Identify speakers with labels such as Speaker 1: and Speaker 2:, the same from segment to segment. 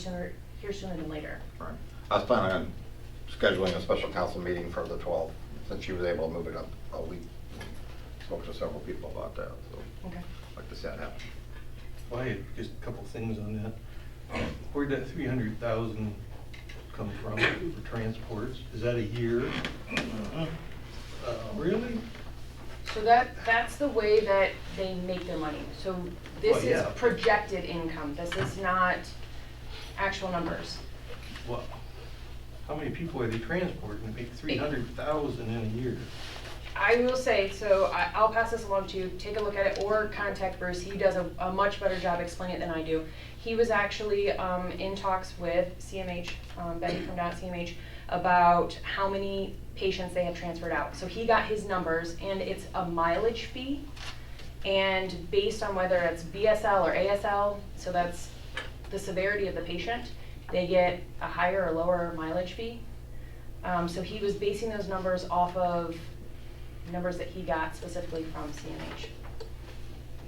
Speaker 1: sooner, here sooner than later.
Speaker 2: Right. I was planning on scheduling a special council meeting for the 12th, since she was able to move it up a week. Spoke to several people about that, so
Speaker 1: Okay.
Speaker 2: I'd like to see that happen.
Speaker 3: Well, I had just a couple things on that. Where'd that three hundred thousand come from for transports? Is that a year? Uh, Really?
Speaker 1: So that, that's the way that they make their money. So this
Speaker 3: Well,
Speaker 1: is
Speaker 3: yeah.
Speaker 1: projected income, this is not actual numbers.
Speaker 3: Well, how many people are they transporting to make three hundred thousand in a year?
Speaker 1: I will say, so I, I'll pass this along to you, take a look at it, or contact Bruce, he does a, a much better job explaining it than I do. He was actually, um, in talks with CMH, um, Betty from Down at CMH, about how many patients they have transferred out. So he got his numbers, and it's a mileage fee, and based on whether it's BSL or ASL, so that's the severity of the patient, they get a higher or lower mileage fee. Um, so he was basing those numbers off of numbers that he got specifically from CMH.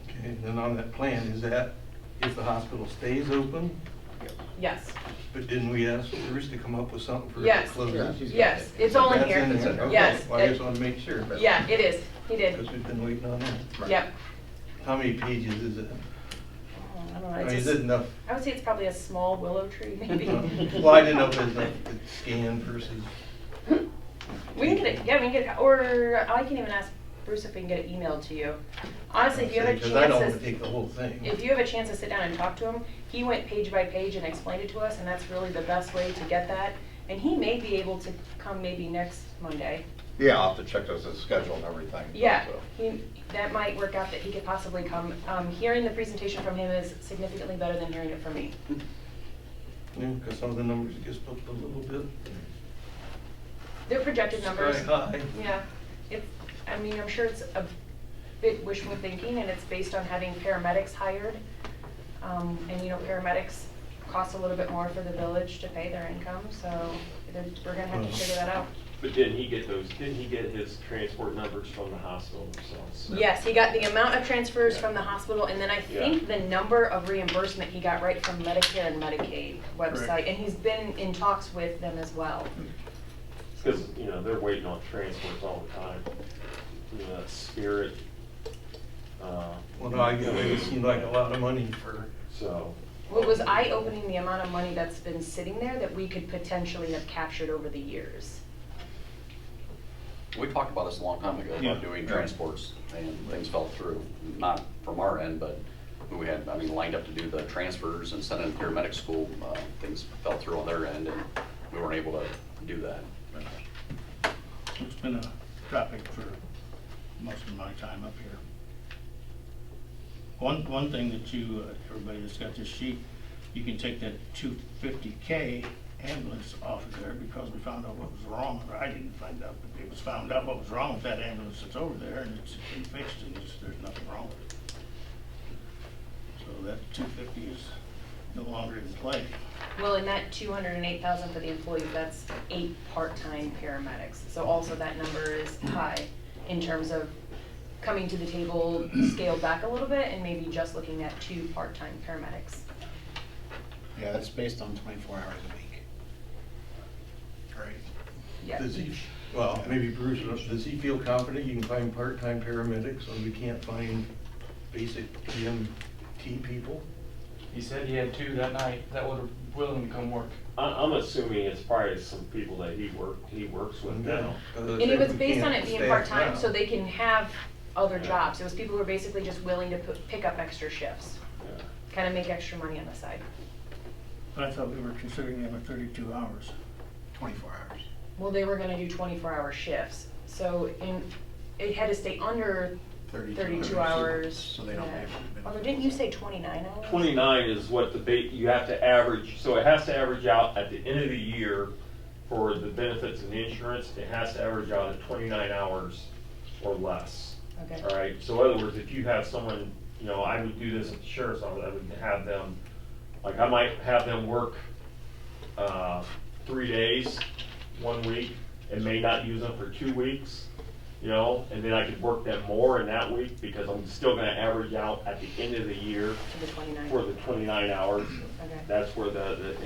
Speaker 3: Okay, and then on that plan, is that if the hospital stays open?
Speaker 1: Yes,
Speaker 3: But didn't we ask Bruce to come up with something for
Speaker 1: Yes.
Speaker 3: if it closes?
Speaker 2: Yeah.
Speaker 1: yes, it's all in
Speaker 3: That's
Speaker 1: here.
Speaker 3: there. Okay.
Speaker 1: Yes,
Speaker 3: Well, I
Speaker 1: it-
Speaker 3: just want to make sure.
Speaker 1: Yeah, it is, he
Speaker 3: Because
Speaker 1: did,
Speaker 3: we've been waiting on that.
Speaker 2: Right.
Speaker 1: yep.
Speaker 3: How many pages is it?
Speaker 1: I don't know,
Speaker 3: I
Speaker 1: it's
Speaker 3: mean, is
Speaker 1: just-
Speaker 3: it enough?
Speaker 1: I would say it's probably a small willow tree, maybe.
Speaker 3: Well, I didn't know if it was like the scan versus,
Speaker 1: We can get it, yeah, we can get it, or I can even ask Bruce if we can get it emailed to you. Honestly, if you have a chance.
Speaker 3: because I don't want
Speaker 1: to-
Speaker 3: to take the whole thing.
Speaker 1: if you have a chance to sit down and talk to him, he went page by page and explained it to us, and that's really the best way to get that. And he may be able to come maybe next Monday.
Speaker 2: Yeah, I'll have to check those, the schedule and everything. uh,
Speaker 1: Yeah,
Speaker 2: so.
Speaker 1: he, that might work out that he could possibly come. Um, hearing the presentation from him is significantly better than hearing it from me.
Speaker 3: Because some of the numbers just up a little bit.
Speaker 1: They're projected numbers.
Speaker 3: Sky high.
Speaker 1: Yeah, it's, I mean, I'm sure it's a bit wishful thinking, and it's based on having paramedics hired. Um, and you know, paramedics cost a little bit more for the village to pay their income, so they're- we're gonna have to figure that out.
Speaker 4: But didn't he get those, didn't he get his transport numbers from the hospital themselves?
Speaker 1: Yes, he got the amount of transfers from the hospital, and then I think the number of reimbursement he got right from Medicare and Medicaid website,
Speaker 3: Correct.
Speaker 1: and he's been in talks with them as well.
Speaker 4: Because, you know, they're waiting on transports all the time. You know, that Spirit. uh,
Speaker 3: Well, no, I, it seemed like a lot of money for,
Speaker 4: So,
Speaker 1: What was eye-opening, the amount of money that's been sitting there that we could potentially have captured over the years.
Speaker 5: We talked about this a long time ago,
Speaker 2: Yeah.
Speaker 5: about doing transports, and things fell through, not from our end, but we had, I mean, lined up to do the transfers and send in paramedic school, uh, things fell through on their end, and we weren't able to do that.
Speaker 6: It's been a topic for most of my time up here. One, one thing that you, uh, everybody that's got this sheet, you can take that two fifty K ambulance off of there because we found out what was wrong, or I didn't find out, but it was found out what was wrong with that ambulance that's over there and it's been fixed and it's, there's nothing wrong with it. So that two fifty is no longer in play.
Speaker 1: Well, in that two hundred and eight thousand for the employees, that's eight part-time paramedics. So also that number is high in terms of coming to the table scaled back a little bit and maybe just looking at two part-time paramedics.
Speaker 7: Yeah, that's based on twenty-four hours a week. Right.
Speaker 1: Yeah.
Speaker 3: does he, well, maybe Bruce, does he feel confident you can find part-time paramedics when we can't find basic EMT people?
Speaker 8: He said he had two that night that were willing to come work.
Speaker 4: I, I'm assuming it's probably some people that he worked, he works with
Speaker 3: Mm-hmm.
Speaker 4: now.
Speaker 1: And it was based on it being part-time, so they can have other
Speaker 4: Yeah.
Speaker 1: jobs. It was people who were basically just willing to put- pick up extra shifts,
Speaker 4: Yeah.
Speaker 1: kind of make extra money on the side.
Speaker 6: But I thought we were considering them at thirty-two hours.
Speaker 7: Twenty-four hours.
Speaker 1: Well, they were gonna do twenty-four hour shifts, so in, it had to stay under
Speaker 7: 32
Speaker 1: thirty-two hours.
Speaker 7: So they don't
Speaker 1: yeah.
Speaker 7: pay for the benefits.
Speaker 1: Although, didn't you say twenty-nine hours?
Speaker 4: 29 is what the, ba- you have to average, so it has to average out at the end of the year for the benefits and the insurance, it has to average out at 29 hours or less.
Speaker 1: Okay.
Speaker 4: All right, so in other words, if you have someone, you know, I would do this at the sheriff's office, I would have them, like, I might have them work uh, three days, one week, and may not use them for two weeks, you know, and then I could work them more in that week, because I'm still gonna average out at the end of the year
Speaker 1: To the twenty-nine.
Speaker 4: for the 29 hours.
Speaker 1: Okay.
Speaker 4: That's where the, the